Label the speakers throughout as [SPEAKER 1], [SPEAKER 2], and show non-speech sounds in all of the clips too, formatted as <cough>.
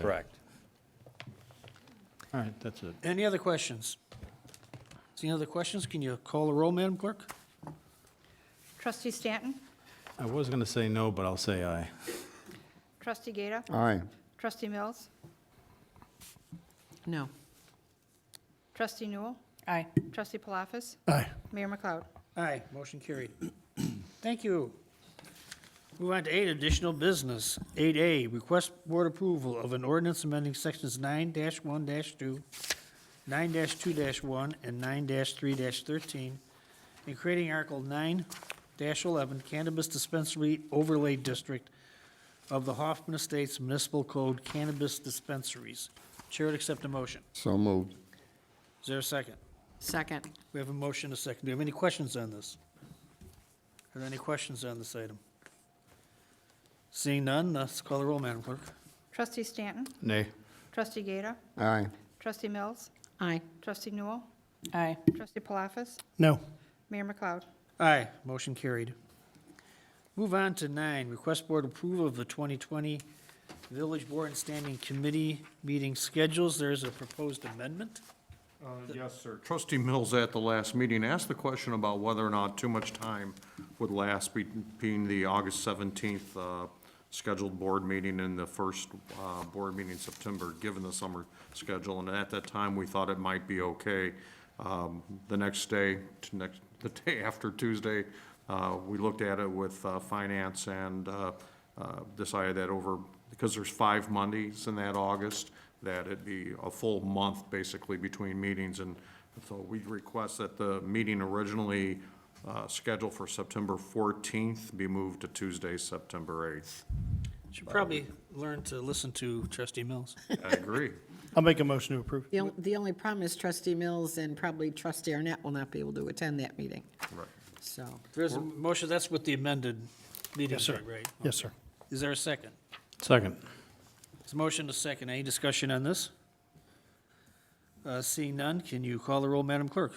[SPEAKER 1] Correct.
[SPEAKER 2] All right, that's it.
[SPEAKER 3] Any other questions? Any other questions? Can you call the roll, Madam Clerk?
[SPEAKER 4] Trustee Stanton?
[SPEAKER 2] I was going to say no, but I'll say aye.
[SPEAKER 4] Trustee Gata?
[SPEAKER 5] Aye.
[SPEAKER 4] Trustee Mills?
[SPEAKER 6] No.
[SPEAKER 4] Trustee Newell?
[SPEAKER 6] Aye.
[SPEAKER 4] Trustee Palafis?
[SPEAKER 2] Aye.
[SPEAKER 4] Mayor McLeod?
[SPEAKER 3] Aye, motion carried. Thank you. Move on to eight, additional business. Eight A, request board approval of an ordinance amending sections nine one two, nine two one, and nine three thirteen, and creating Article nine eleven Cannabis Dispensary Overlay District of the Hoffman Estates Municipal Code Cannabis Dispensaries. Chair would accept a motion.
[SPEAKER 5] So moved.
[SPEAKER 3] Is there a second?
[SPEAKER 6] Second.
[SPEAKER 3] We have a motion, and a second. Do you have any questions on this? Are there any questions on this item? Seeing none, let's call the roll, Madam Clerk.
[SPEAKER 4] Trustee Stanton?
[SPEAKER 2] Nay.
[SPEAKER 4] Trustee Gata?
[SPEAKER 5] Aye.
[SPEAKER 4] Trustee Mills?
[SPEAKER 6] Aye.
[SPEAKER 4] Trustee Newell?
[SPEAKER 6] Aye.
[SPEAKER 4] Trustee Palafis?
[SPEAKER 3] No.
[SPEAKER 4] Mayor McLeod?
[SPEAKER 3] Aye, motion carried. Move on to nine, request board approval of the 2020 Village Board and Standing Committee meeting schedules. There is a proposed amendment.
[SPEAKER 7] Uh, Yes, sir. Trustee Mills at the last meeting asked the question about whether or not too much time would last between the August 17th uh, scheduled board meeting and the first uh, board meeting in September, given the summer schedule. And at that time, we thought it might be okay. Um, The next day, t- next, <laughs> the day after Tuesday, uh, we looked at it with uh, finance and uh, uh, decided that over, because there's five Mondays in that August, that it'd be a full month basically between meetings. And so we request that the meeting originally uh, scheduled for September 14th be moved to Tuesday, September 8th.
[SPEAKER 3] Should probably learn to listen to
[SPEAKER 8] <laughs>
[SPEAKER 3] Trustee Mills.
[SPEAKER 7] I agree.
[SPEAKER 8] I'll make a motion to approve.
[SPEAKER 6] The, on- the only problem is trustee Mills and probably trustee Arnett will not be able to attend that meeting,
[SPEAKER 7] Right.
[SPEAKER 6] so.
[SPEAKER 3] There is a motion, that's with the amended meeting
[SPEAKER 8] Yes, sir.
[SPEAKER 3] date, right?
[SPEAKER 8] Yes, sir.
[SPEAKER 3] Is there a second?
[SPEAKER 2] Second.
[SPEAKER 3] There's a motion to second. Any discussion on this? Uh, Seeing none, can you call the roll, Madam Clerk?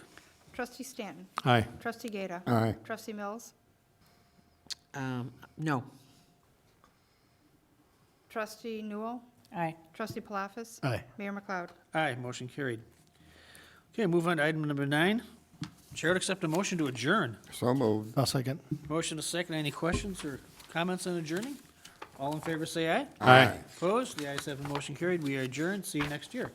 [SPEAKER 4] Trustee Stanton?
[SPEAKER 2] Aye.
[SPEAKER 4] Trustee Gata?
[SPEAKER 5] Aye.
[SPEAKER 4] Trustee Mills?
[SPEAKER 6] Um, no.
[SPEAKER 4] Trustee Newell?
[SPEAKER 6] Aye.
[SPEAKER 4] Trustee Palafis?
[SPEAKER 8] Aye.
[SPEAKER 4] Mayor McLeod?
[SPEAKER 3] Aye, motion carried. Okay, move on to item number nine. Chair would accept a motion to adjourn.
[SPEAKER 5] So moved.
[SPEAKER 8] I'll second.
[SPEAKER 3] Motion to second. Any questions or comments on adjourning? All in favor, say aye.
[SPEAKER 2] Aye.
[SPEAKER 3] Opposed? The ayes have a motion carried. We are adjourned. See you next year.